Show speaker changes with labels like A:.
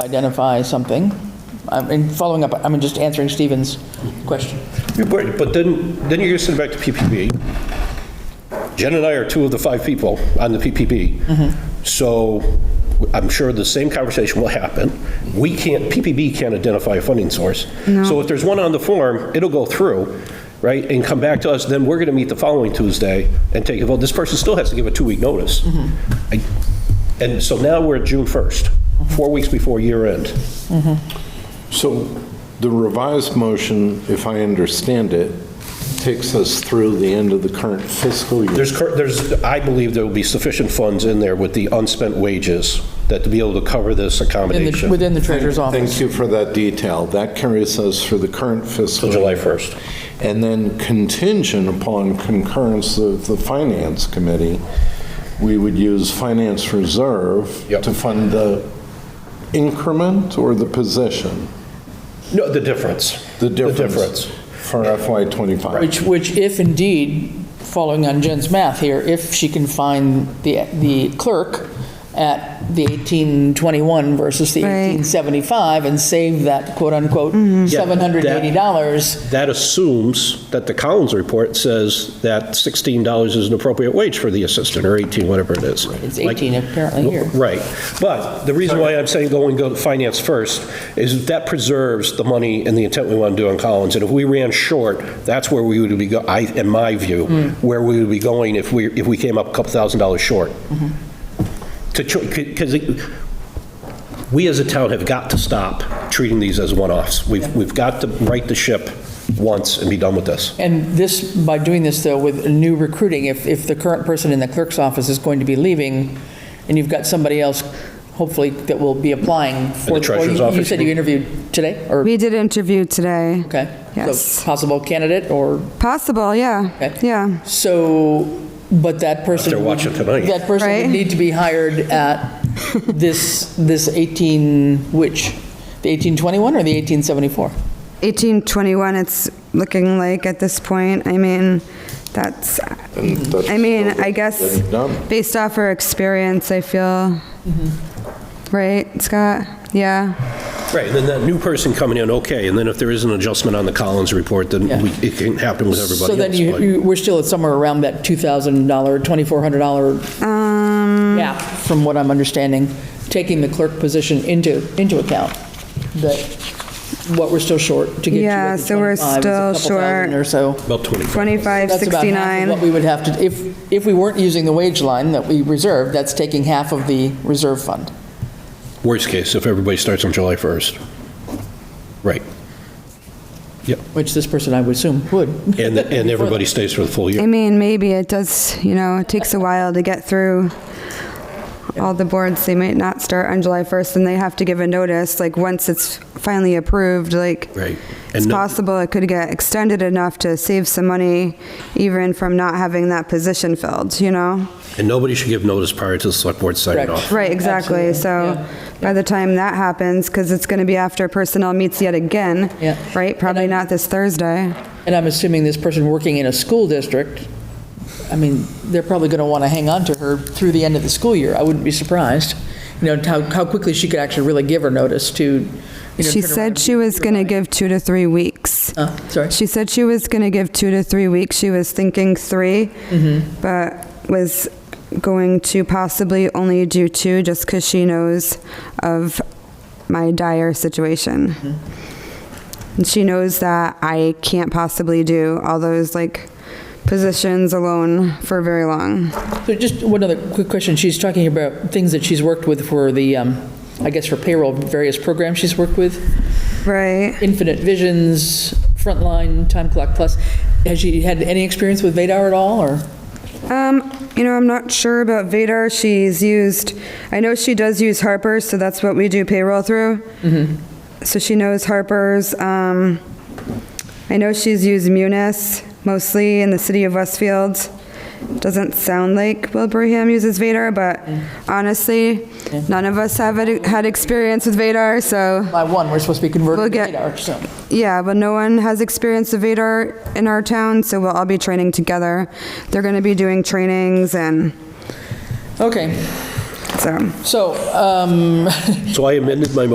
A: identify something. I mean, following up, I mean, just answering Stephen's question.
B: Yeah, But but then, then you're sitting back to PPP. Jen and I are two of the five people on the PPP. So I'm sure the same conversation will happen. We can't, PPP can't identify a funding source. So if there's one on the form, it'll go through, right, and come back to us, then we're going to meet the following Tuesday and take, well, this person still has to give a two-week notice. I- And so now we're at June 1st, four weeks before year end.
C: So the revised motion, if I understand it, takes us through the end of the current fiscal year.
B: There's, cur- there's, I believe there will be sufficient funds in there with the unspent wages that to be able to cover this
A: In the-
B: accommodation
A: Within the treasurer's office.
C: Thank you for that detail. That carries us for the current fiscal.
B: till July 1st.
C: And then contingent upon concurrence of the Finance Committee, we would use finance reserve
B: Yep.
C: to fund the increment or the position?
B: No, the difference.
C: The difference.
B: The difference.
C: For FY '25.
A: Which, which if indeed, following on Jen's math here, if she can find the, the clerk at the 1821 versus the
D: Right.
A: 1875 and save that quote-unquote
B: Yeah,
A: $780,
B: That assumes that the Collins report says that $16 is an appropriate wage for the assistant, or 18, whatever it is.
A: it's 18 apparently here.
B: Right. But the reason why I'm saying go and go to finance first is that preserves the money and the intent we want to do on Collins. And if we ran short, that's where we would be, go- I, in my view,
A: Mm.
B: where we would be going if we, if we came up a couple thousand dollars short.
A: Mm-hmm.
B: To, because we as a town have got to stop treating these as one-offs. We've, we've got to right the ship once and be done with this.
A: And this, by doing this, though, with new recruiting, if, if the current person in the clerk's office is going to be leaving, and you've got somebody else, hopefully, that will be applying for...
B: the treasurer's
A: or you- You
B: office,
A: said
B: you-
A: you interviewed today, or,
D: We did interview today.
A: okay?
D: Yes.
A: So possible candidate, or,
D: Possible, yeah,
A: Okay.
D: yeah.
A: so, but that person...
B: They're watching tonight.
A: That person would
D: Right.
A: need to be hired at this, this 18, which? The 1821 or the 1874?
D: 1821, it's looking like at this point, I mean, that's, I mean, I guess, based off her experience, I feel,
A: Mm-hmm.
D: right, Scott? Yeah,
B: Right, and then that new person coming in, okay, and then if there is an adjustment on the Collins report, then
A: Yeah.
B: we- it can happen with everybody else.
A: So then you,
B: but-
A: you- we're still at somewhere around that $2,000, $2,400
D: um,
A: Yeah, from what I'm understanding, taking the clerk position into, into account, that what we're still short to get you
D: Yeah,
A: at the
D: so
A: 25
D: we're
A: is a couple
D: still
A: thousand
D: short.
A: or so.
B: About 25.
D: 25,
A: That's about half of what
D: 69.
A: we would have to, if, if we weren't using the wage line that we reserved, that's taking half of the reserve fund.
B: Worst case, if everybody starts on July 1st. Right. Yep,
A: Which this person, I would assume, would.
B: and, and everybody stays for the full
D: I
B: year.
D: mean, maybe it does, you know, it takes a while to get through all the boards. They might not start on July 1st and they have to give a notice, like, once it's finally approved, like,
B: Right.
D: it's
B: And no-
D: possible it could get extended enough to save some money even from not having that position filled, you know?
B: And nobody should give notice prior to the select board signing
A: Correct.
B: off.
D: Right, exactly.
A: Absolutely,
D: So by the time that happens, because it's going to be after personnel meets yet again,
A: Yeah.
D: right? Probably not this Thursday.
A: And I'm assuming this person working in a school district, I mean, they're probably going to want to hang on to her through the end of the school year. I wouldn't be surprised. You know, how, how quickly she could actually really give her notice to, you know.
D: She
A: turn around and
D: said she was going to give two to three weeks.
A: Uh, Sorry.
D: She said she was going to give two to three weeks. She was thinking 3 but was going to possibly only do two just because she knows of my dire situation. And she knows that I can't possibly do all those like positions alone for very long.
A: So just one other quick question. She's talking about things that she's worked with for the, um, I guess for payroll, various programs she's worked with,
D: Right.
A: Infinite Visions, Frontline, Time Clock Plus. Has she had any experience with Vadar at all, or?
D: Um, you know, I'm not sure about Vadar. She's used, I know she does use Harper's, so that's what we do payroll through. So she knows Harper's. Um, I know she's used Munis mostly in the city of Westfield. Doesn't sound like Wilbraham uses Vadar, but honestly, none of us have had- had experience with Vadar, so.
A: By one, we're supposed to be
D: We'll
A: converted to
D: get-
A: Vadar, so.
D: Yeah, but no one has experience of Vadar in our town, so we'll all be training together. They're going to be doing trainings and
A: Okay,
D: so.
A: so, um,
B: So I amended my